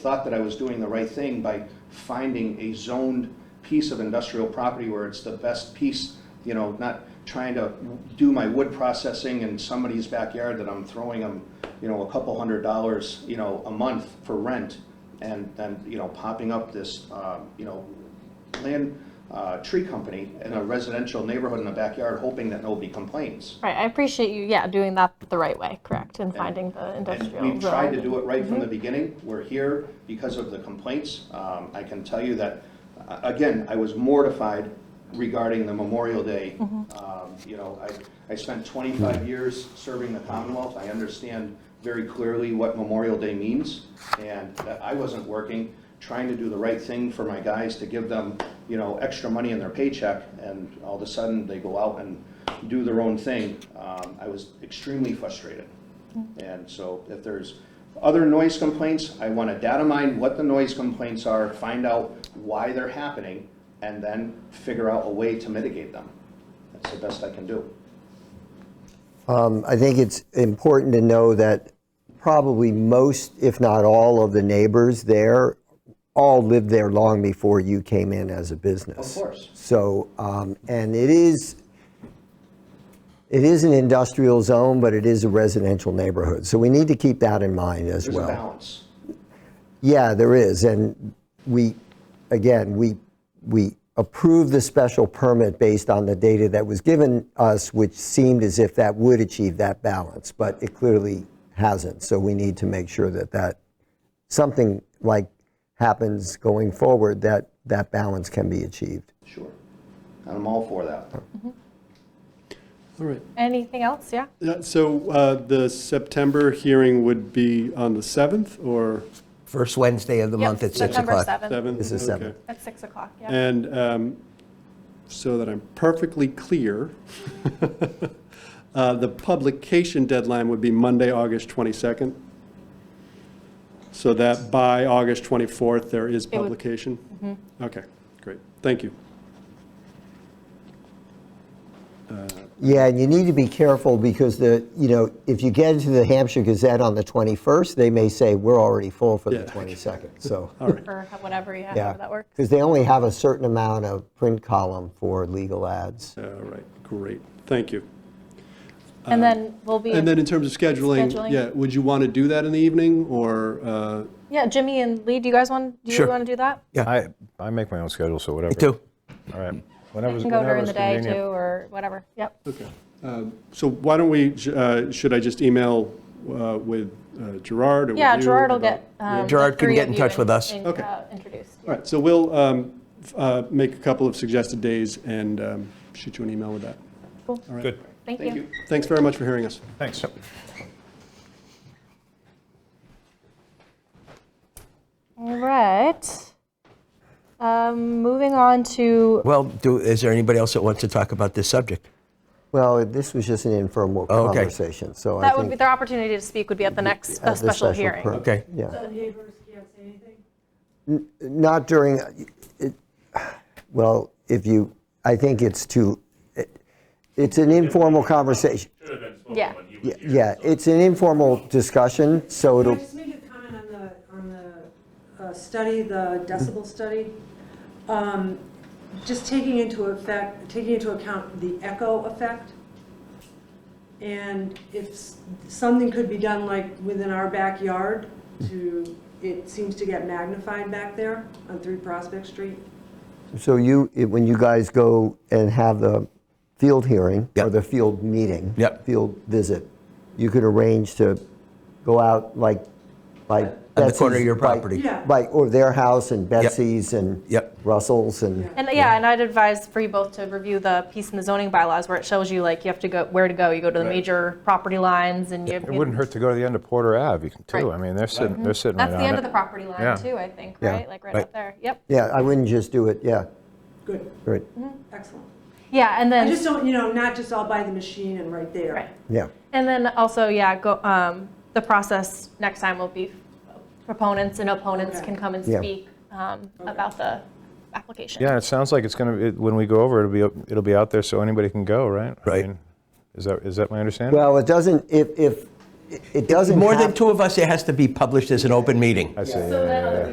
thought that I was doing the right thing by finding a zoned piece of industrial property where it's the best piece, you know, not trying to do my wood processing in somebody's backyard that I'm throwing them, you know, a couple hundred dollars, you know, a month for rent, and then, you know, popping up this, uh, you know, land, uh, tree company in a residential neighborhood in the backyard, hoping that nobody complains. Right, I appreciate you, yeah, doing that the right way, correct, and finding the And industrial. we've tried to zone. do it right from the beginning. We're here because of the complaints. Um, I can tell you that, uh, again, I was mortified regarding the Memorial Day. Um, You know, I, I spent 25 years serving the Commonwealth. I understand very clearly what Memorial Day means. And that I wasn't working, trying to do the right thing for my guys to give them, you know, extra money in their paycheck. And all of a sudden, they go out and do their own thing. Um, I was extremely frustrated. And so if there's other noise complaints, I want to data mine what the noise complaints are, find out why they're happening, and then figure out a way to mitigate them. That's the best I can do. Um, I think it's important to know that probably most, if not all, of the neighbors there all lived there long before you came in as a business. Of course. So, um, and it is, it is an industrial zone, but it is a residential neighborhood. So we need to keep that in mind as There's well. a balance. Yeah, there is, and we, again, we, we approved the special permit based on the data that was given us, which seemed as if that would achieve that balance, but it clearly hasn't, so we need to make sure that that, something like happens going forward, that that balance can be achieved. Sure. And I'm all for that. All right. Anything else, yeah? Yeah, So uh, the September hearing would be on the 7th or First Wednesday of the Yep, month at 6 September o'clock. 7th, 7th? This is Okay. 7th. at 6 o'clock, yeah. And um, so that I'm perfectly clear, uh, the publication deadline would be Monday, August 22nd? So that by August 24th, there is would- publication? Okay, great. Thank you. Yeah, and you need to be careful because the, you know, if you get into the Hampshire Gazette on the 21st, they may say, we're already full for the Yeah. 22nd, so. Or ho- whatever, yeah, Yeah, however that works. Because they only have a certain amount of print column for legal ads. All right, great. Thank you. Uh, And then we'll be, And then in terms of Scheduling. scheduling, yeah, would you want to do that in the evening or? uh, yeah, Jimmy and Lee, do you guys want, do you Sure. want to do that? I, I make my own schedule, so whatever. too. All right. Whenever, You can go whenever during it's the day too, convenient. or whatever, yep. Okay. Um, So why don't we, uh, should I just email uh, with uh, Gerard or with Yeah, you Gerard will about- get. um, the Gerard can three get of in you touch with us. in- Okay. uh, Introduced. All right, so we'll um, f- uh, make a couple of suggested days and um, shoot you an email with that. Good. Thank Thank you. you. Thanks very much for hearing us. Thanks. All right. Um, Moving on to, Well, do, is there anybody else that wants to talk about this subject? Well, this was just an informal Oh, okay. conversation, so I that would be, think. their opportunity to speak would be at the next uh, at the special hearing. per- Okay. Yeah, The neighbors can't say anything? not during, it- well, if you, I think it's too, it- it's an informal conversation. Yeah. Yeah, Yeah, it's an informal discussion, so Can I it'll, just make a comment on the, on the uh, study, the decibel study? Um, Just taking into effect, taking into account the echo effect. And if s- something could be done like within our backyard to, it seems to get magnified back there on 3 Prospect Street. so you, it- when you guys go and have the field hearing or Yep. the field meeting. Yep. Field visit, you could arrange to go out like, like. On the corner of Betsy's- your like- property. Yeah. Like, or their house and Betsy's and Yep. Russell's and, And yeah, and I'd advise for you both to review the piece in the zoning bylaws where it shows you like you have to go, where to go. You go to the major property lines and you. It wouldn't hurt to go to the end of Porter Ave you can- too. Right. I mean, they're sitting, they're sitting right That's on it. the end of the property Yeah. line too, I think, Yeah. right? Like right Right. up there. Yep. yeah, I wouldn't just do it, yeah, Good, right, excellent. Yeah, and I then, just don't, you know, not just all by the machine and right there. right. yeah. And then also, yeah, go, um, the process next time will be proponents and opponents Okay. can come and Yeah. speak, um, about the application. Yeah, it sounds like it's going to, when we go over, it'll be, it'll be out there so anybody can go, right? I Right. mean, Is that, is that my understanding? Well, it doesn't, if, if, it doesn't More have than two of us, it has to be published as an open meeting. I see. So yeah, then yeah, other yeah.